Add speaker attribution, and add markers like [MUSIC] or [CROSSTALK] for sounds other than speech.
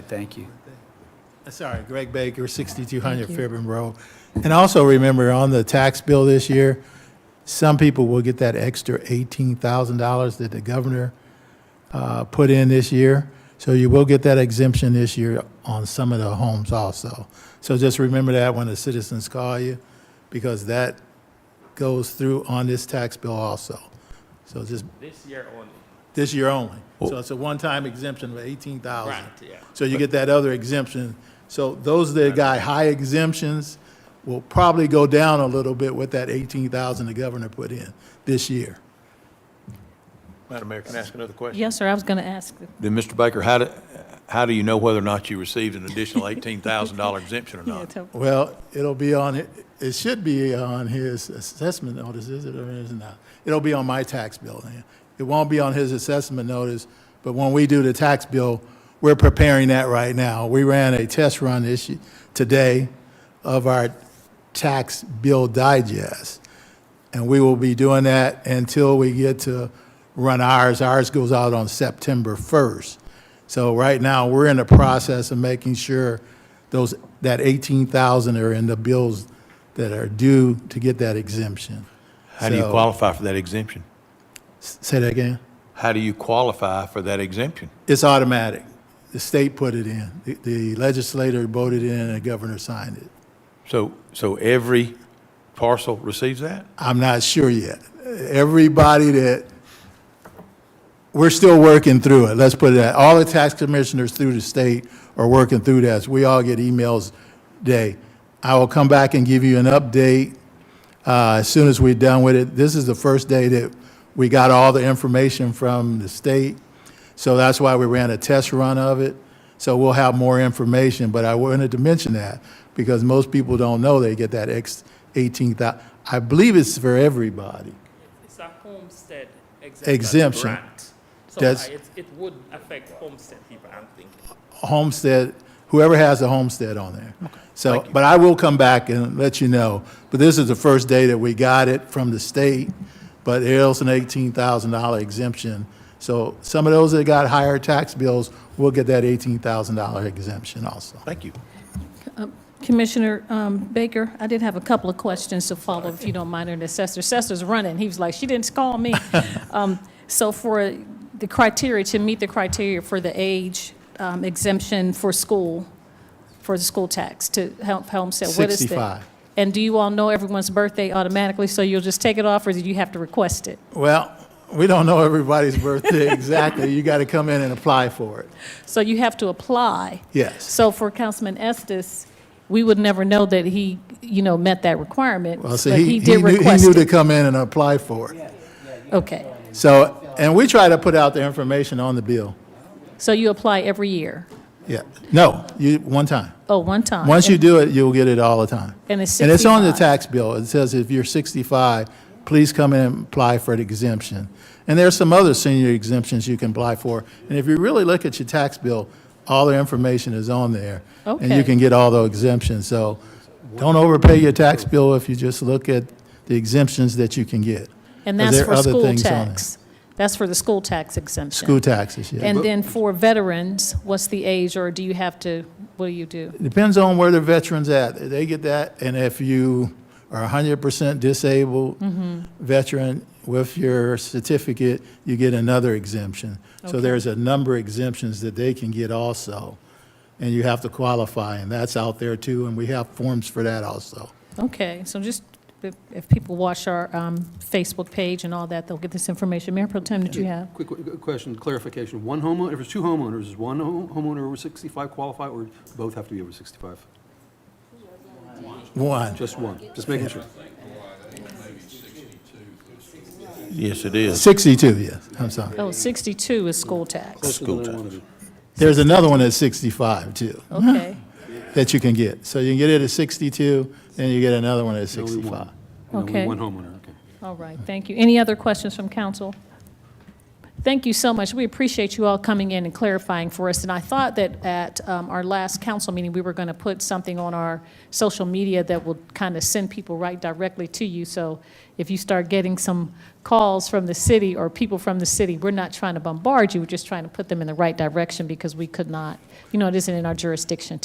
Speaker 1: Thank you.
Speaker 2: Uh, Sorry, Greg Baker, 6200
Speaker 3: Thank you.
Speaker 2: Fairburn Road. And also remember, on the tax bill this year, some people will get that extra $18,000 that the governor uh, put in this year. So you will get that exemption this year on some of the homes also. So just remember that when the citizens call you, because that goes through on this tax bill also. So just
Speaker 4: This year only.
Speaker 2: this year only. So it's a one-time exemption of 18,000.
Speaker 4: Right, yeah.
Speaker 2: So you get that other exemption. So those that got high exemptions will probably go down a little bit with that 18,000 the governor put in this year.
Speaker 5: Madam Mayor, can I ask another question?
Speaker 3: Yes, sir, I was going to ask.
Speaker 5: Then, Mr. Baker, how do, how do you know whether or not you received an additional
Speaker 3: [LAUGHS]
Speaker 5: $18,000 exemption or
Speaker 3: Yeah,
Speaker 5: not?
Speaker 3: tell-
Speaker 2: Well, it'll be on, it It should be on his assessment notice, is it or is it not? It'll be on my tax bill. yeah. It won't be on his assessment notice, but when we do the tax bill, we're preparing that right now. We ran a test run this, y- today of our tax bill digest. And we will be doing that until we get to run ours. Ours goes out on September 1st. So right now, we're in the process of making sure those, that 18,000 are in the bills that are due to get that exemption.
Speaker 5: How do you
Speaker 2: So-
Speaker 5: qualify for that exemption?
Speaker 2: S- Say that again?
Speaker 5: How do you qualify for that exemption?
Speaker 2: It's automatic. The state put it in. The- The legislator voted in and the governor signed it.
Speaker 5: So, so every parcel receives that?
Speaker 2: I'm not sure yet. Everybody that, we're still working through it, let's put it that. All the tax commissioners through the state are working through this. We all get emails day. I will come back and give you an update uh, as soon as we're done with it. This is the first day that we got all the information from the state, so that's why we ran a test run of it. So we'll have more information, but I wanted to mention that because most people don't know they get that X 18,000. I believe it's for everybody.
Speaker 4: It's a homestead exemption.
Speaker 2: Exemption.
Speaker 4: grant. So
Speaker 2: That's-
Speaker 4: I- it, it would affect homestead people, I'm thinking.
Speaker 2: homestead, whoever has a homestead on there. So, but I will come back and let you know. But this is the first day that we got it from the state, but there's an eighteen thousand dollar exemption. So some of those that got higher tax bills will get that eighteen thousand dollar exemption also.
Speaker 5: Thank you.
Speaker 3: Commissioner um, Baker, I did have a couple of questions to follow, if you don't mind, and the assessor, assessor's running, he was like, she didn't call me. Um, So for the criteria, to meet the criteria for the age um, exemption for school, for the school tax to help homestead, what is that?
Speaker 2: 65.
Speaker 3: And do you all know everyone's birthday automatically, so you'll just take it off, or do you have to request it?
Speaker 2: Well, we don't know everybody's [LAUGHS] birthday exactly. You got to come in and apply for it.
Speaker 3: So you have to apply.
Speaker 2: Yes.
Speaker 3: So for Councilman Estes, we would never know that he, you know, met that requirement,
Speaker 2: Well,
Speaker 3: but
Speaker 2: Uh, see, he,
Speaker 3: he
Speaker 2: he
Speaker 3: did
Speaker 2: knew, he
Speaker 3: request
Speaker 2: knew to
Speaker 3: it.
Speaker 2: come in and apply for it.
Speaker 3: Okay.
Speaker 2: So, and we try to put out the information on the bill.
Speaker 3: So you apply every year?
Speaker 2: Yeah, no, you, one time.
Speaker 3: Oh, one time?
Speaker 2: Once you do it, you'll get it all the time.
Speaker 3: And it's
Speaker 2: And it's on the
Speaker 3: 65.
Speaker 2: tax bill. It says if you're 65, please come in and apply for an exemption. And there's some other senior exemptions you can apply for. And if you really look at your tax bill, all the information is on there. And you
Speaker 3: Okay.
Speaker 2: can get all the exemptions. So don't overpay your tax bill if you just look at the exemptions that you can get.
Speaker 3: And
Speaker 2: 'Cause
Speaker 3: that's
Speaker 2: there are
Speaker 3: for
Speaker 2: other
Speaker 3: school
Speaker 2: things on there.
Speaker 3: tax? That's for the school tax exemption?
Speaker 2: School taxes, yeah.
Speaker 3: And then for veterans, what's the age, or do you have to, what do you do?
Speaker 2: Depends on where the veteran's at. They get that, and if you are hundred percent disabled
Speaker 3: Mm-hmm.
Speaker 2: veteran with your certificate, you get another exemption. So there's a number of exemptions that they can get also, and you have to qualify, and that's out there too, and we have forms for that also.
Speaker 3: Okay, so just, if- if people watch our um, Facebook page and all that, they'll get this information. Mayor Pro Tem, did you have?
Speaker 6: Quick qu- qu- question, clarification. One homeowner, if it's two homeowners, is one ho- homeowner over 65 qualify, or both have to be over 65?
Speaker 2: One,
Speaker 6: Just one, just making sure.
Speaker 5: Yes, it is.
Speaker 2: sixty-two, yes, I'm sorry.
Speaker 3: Oh, 62 is school tax.
Speaker 6: Closer than I wanna be.
Speaker 2: There's another one at sixty-five too,
Speaker 3: Okay,
Speaker 2: that you can get. So you can get it at sixty-two, and you get another one at
Speaker 6: Only one.
Speaker 2: sixty-five.
Speaker 6: And only
Speaker 3: Okay.
Speaker 6: one homeowner, okay.
Speaker 3: all right, thank you. Any other questions from council? Thank you so much. We appreciate you all coming in and clarifying for us. And I thought that at um, our last council meeting, we were going to put something on our social media that will kind of send people right directly to you. So if you start getting some calls from the city or people from the city, we're not trying to bombard you, we're just trying to put them in the right direction because we could not, you know, it isn't in our jurisdiction